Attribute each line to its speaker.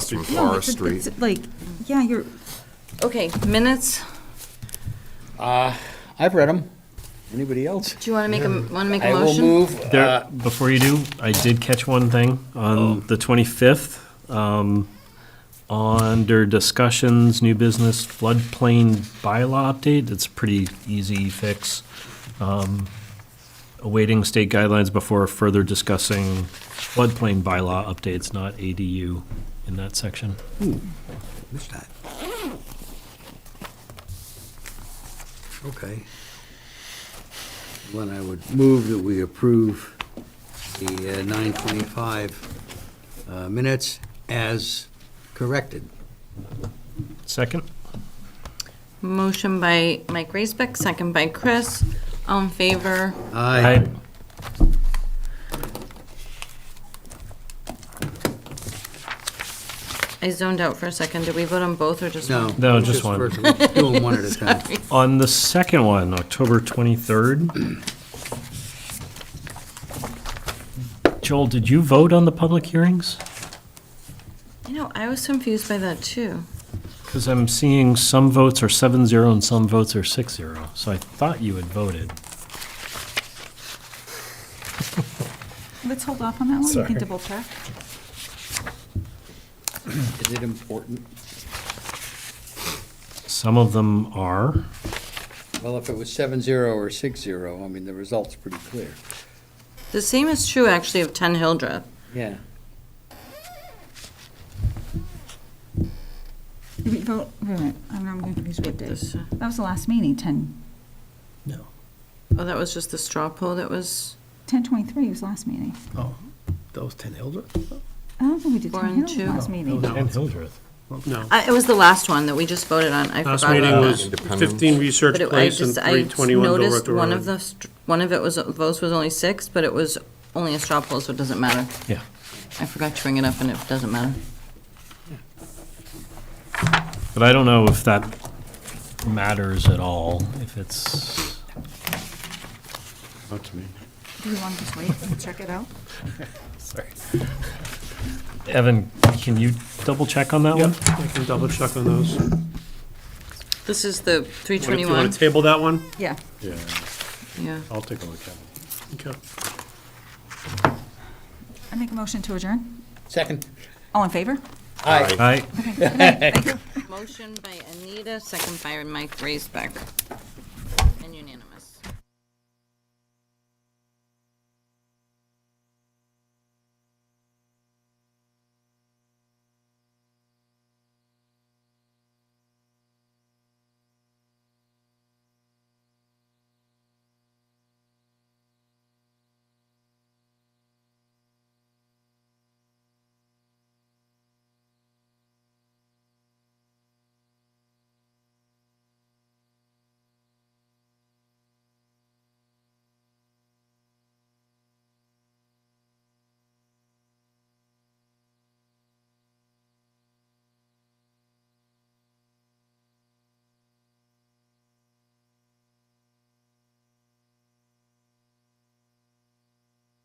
Speaker 1: from
Speaker 2: No,
Speaker 1: Forest
Speaker 2: it's-
Speaker 1: Street.
Speaker 2: it's Like, yeah, you're,
Speaker 3: Okay, minutes,
Speaker 4: I've read them. Anybody else?
Speaker 3: do you want to make a, want to make a
Speaker 4: I will
Speaker 3: motion?
Speaker 4: move,
Speaker 5: There,
Speaker 4: uh,
Speaker 5: before you do, I did catch one thing on the 25th. um, Under discussions, new business floodplain bylaw update, it's a pretty easy fix. Um, Awaiting state guidelines before further discussing floodplain bylaw updates, not ADU in that section.
Speaker 4: missed that. Okay. Then I would move that we approve the uh, nine twenty-five uh, minutes as corrected.
Speaker 5: Second?
Speaker 3: Motion by Mike Raisbeck, second by Chris. All in favor?
Speaker 4: Aye.
Speaker 3: I zoned out for a second. Did we vote on both or just one?
Speaker 4: No.
Speaker 5: No, just one.
Speaker 4: first one. Do them one at a time.
Speaker 5: On the second one, October 23rd. Joel, did you vote on the public hearings?
Speaker 3: You know, I was confused by that too.
Speaker 5: Because I'm seeing some votes are 7-0 and some votes are 6-0, so I thought you had voted.
Speaker 2: let's hold off on that one, we can double check.
Speaker 4: Is it important?
Speaker 5: Some of them are.
Speaker 4: Well, if it was seven zero or six zero, I mean, the result's pretty clear.
Speaker 3: The same is true actually of 10 Hildreth.
Speaker 4: Yeah.
Speaker 2: Did we vote, wait a minute, I don't know, I'm confused what day.
Speaker 3: This, uh,
Speaker 2: That was the last meeting, 10,
Speaker 5: No.
Speaker 3: Oh, that was just the straw poll that was
Speaker 2: 10:23 was last meeting.
Speaker 6: Oh, that was 10 Hildreth?
Speaker 2: I don't think we did
Speaker 3: Four
Speaker 2: 10
Speaker 3: and
Speaker 2: Hill
Speaker 3: two.
Speaker 2: last meeting.
Speaker 5: And Hildreth.
Speaker 6: No.
Speaker 3: I, uh, it was the last one that we just voted on. I
Speaker 6: Last
Speaker 3: forgot
Speaker 6: meeting
Speaker 3: about
Speaker 6: was
Speaker 3: that.
Speaker 1: Independence.
Speaker 6: 15 Research
Speaker 3: But it, I
Speaker 6: Place and
Speaker 3: just, I
Speaker 6: 321
Speaker 3: noticed
Speaker 6: Director
Speaker 3: one of
Speaker 6: Road.
Speaker 3: the, str- one of it was, votes was only six, but it was only a straw poll, so it doesn't matter.
Speaker 5: Yeah.
Speaker 3: I forgot to bring it up and it doesn't matter.
Speaker 5: But I don't know if that matters at all, if it's,
Speaker 2: Do you want to just wait and check it out?
Speaker 5: sorry. Evan, can you double check on that
Speaker 6: Yep,
Speaker 5: one?
Speaker 6: I can double check on those. Wanna-
Speaker 3: This is the
Speaker 6: You want
Speaker 3: 321,
Speaker 6: to table that one?
Speaker 2: Yeah.
Speaker 3: yeah.
Speaker 6: I'll take a look at it. Okay.
Speaker 2: I make a motion to adjourn.
Speaker 4: Second.
Speaker 2: All in favor?
Speaker 4: Aye.
Speaker 5: Aye.
Speaker 3: Motion by Anita, second by Mike Raisbeck.